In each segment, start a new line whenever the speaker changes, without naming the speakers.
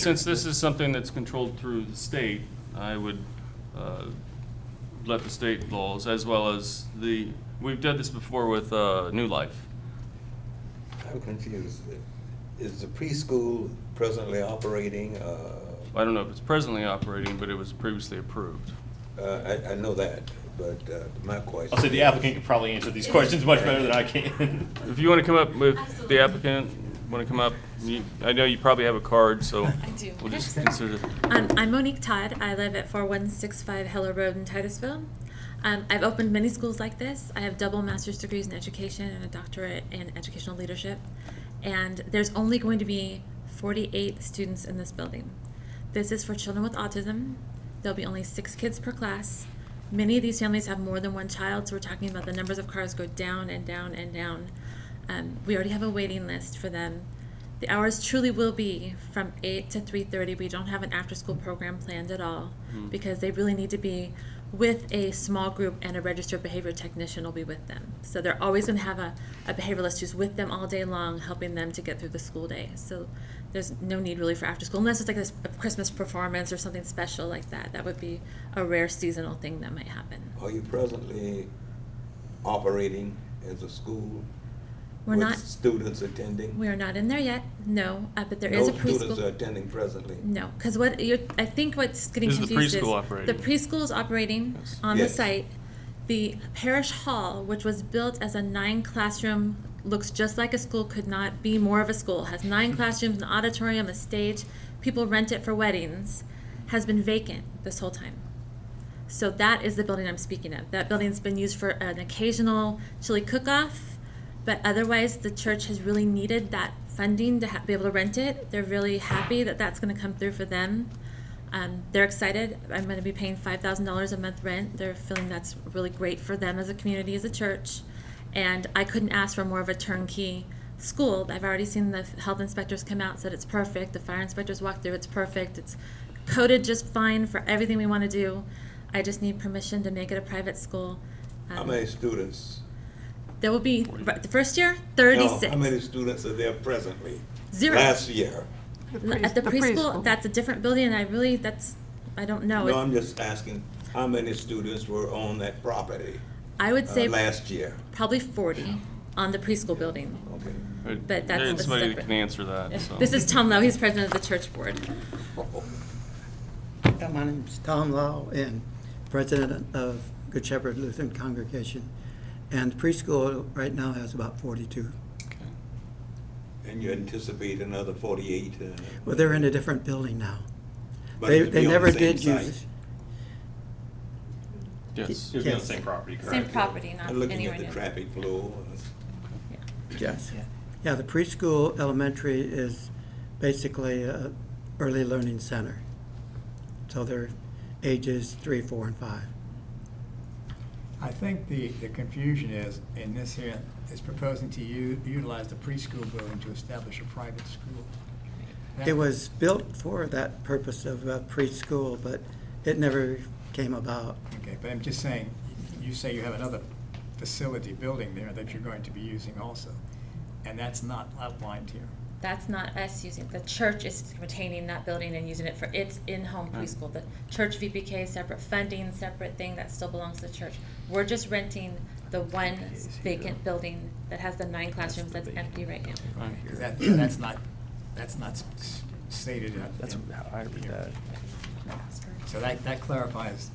Since this is something that's controlled through the state, I would uh, let the state laws, as well as the, we've done this before with uh, New Life.
I'm confused. Is the preschool presently operating? uh,
I don't know if it's presently operating, but it was previously approved.
uh, I, I know that, but uh, my question.
I'll say Oh, the applicant could probably answer these questions much better than I can.
If you want to come up with the applicant, want to come up, you- I know you probably have a card, so.
I do.
We'll just
Excellent.
consider,
Um, I'm Monique Todd. I live at 4165 Heller Road in Titusville. Um, I've opened many schools like this. I have double master's degrees in education and a doctorate in educational leadership. And there's only going to be 48 students in this building. This is for children with autism. There'll be only six kids per class. Many of these families have more than one child, so we're talking about the numbers of cars go down and down and down. Um, we already have a waiting list for them. The hours truly will be from eight to three thirty. We don't have an after-school program planned at all because they really need to be with a small group and a registered behavior technician will be with them. So they're always going to have a, a behavioralist who's with them all day long, helping them to get through the school day. So there's no need really for after school unless it's like a, s- a Christmas performance or something special like that. That would be a rare seasonal thing that might happen.
Are you presently operating as a school?
We're not.
With students attending?
We are not in there yet. No, uh, but there is a preschool.
No students are attending presently?
No, because what you're, I think what's getting
Is the
confused is
preschool operating?
the preschool is operating
Yes.
on the
Yes.
site. The parish hall, which was built as a nine classroom, looks just like a school, could not be more of a school. Has nine classrooms, an auditorium, a stage. People rent it for weddings. Has been vacant this whole time. So that is the building I'm speaking of. That building's been used for an occasional chili cook-off, but otherwise the church has really needed that funding to ha- be able to rent it. They're really happy that that's going to come through for them. Um, they're excited. I'm going to be paying five thousand dollars a month rent. They're feeling that's really great for them as a community, as a church. And I couldn't ask for more of a turnkey school. I've already seen the health inspectors come out, said it's perfect. The fire inspectors walked through, it's perfect. It's coded just fine for everything we want to do. I just need permission to make it a private school.
How
Um,
many students?
There will be, the first year,
No,
thirty-six.
How many students are there presently?
Zero.
Last year?
L- At the preschool, that's a different building, and I really, that's, I don't know.
No,
It's-
I'm just asking, how many students were on that property
I would
uh,
say
last year?
probably forty on the preschool building.
Okay.
but there's
that's- that's
Uh, somebody that
separate.
can answer that, so.
This is Tom Lowe, he's president of the church board.
Hi, My name's Tom Law and president of Good Shepherd Lutheran Congregation. And preschool right now has about 42.
And you anticipate another forty-eight? uh,
Well, they're in a different building now.
but
They,
it'll
they
be on the
never
same
did
site.
use,
Uh,
Yes.
It'd be on the
Yes.
same property, correct?
Same property, not
And looking
anywhere
at the
near.
traffic flow, uh,
yes. Yeah, the preschool elementary is basically a early learning center. So they're ages three, four, and five.
I think the, the confusion is, in this here, is proposing to u- utilize the preschool building to establish a private school. That-
It was built for that purpose of uh, preschool, but it never came about.
Okay, but I'm just saying, you say you have another facility building there that you're going to be using also, and that's not outlined here.
That's not us using, the church is retaining that building and using it for its in-home preschool. The church VPK, separate funding, separate thing, that still belongs to the church. We're just renting the one vacant building that has the nine classrooms that's empty right now.
Right.
'Cause That, that's not, that's not s- s- stated in.
That's
in-
how I read
here.
that.
So that, that clarifies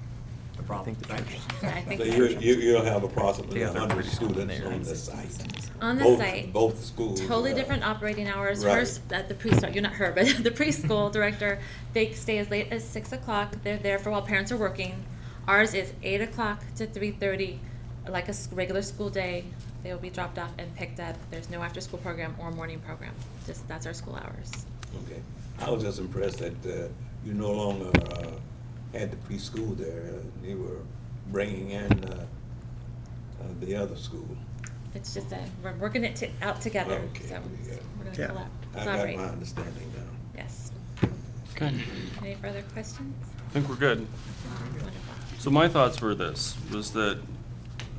the problem.
think the
Thank
church
you.
is-
Yeah, I think
So
the
you,
church-
you, you'll have approximately
The other
hundred
person
students
there.
on the site.
On the
Both-
site.
Both schools.
Totally
uh,
different operating hours.
Right.
Hers, at the preschool, you're not her, but the preschool director, they stay as late as six o'clock. They're there for while parents are working. Ours is eight o'clock to three thirty, like a s- regular school day. They will be dropped off and picked up. There's no after-school program or morning program. Just, that's our school hours.
Okay. I was just impressed that, uh, you no longer, uh, had the preschool there. They were bringing in, uh, uh, the other school.
It's just a, we're working it to, out together,
Okay,
so
yeah.
we're
Yeah.
gonna collab-
I got
collaborate.
my understanding now.
Yes.
Okay,
Any further questions?
I think we're good.
Wonderful.
So my thoughts were this, was that,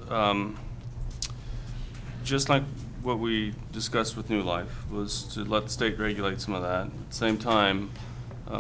um, just like what we discussed with New Life, was to let the state regulate some of that. At the same time,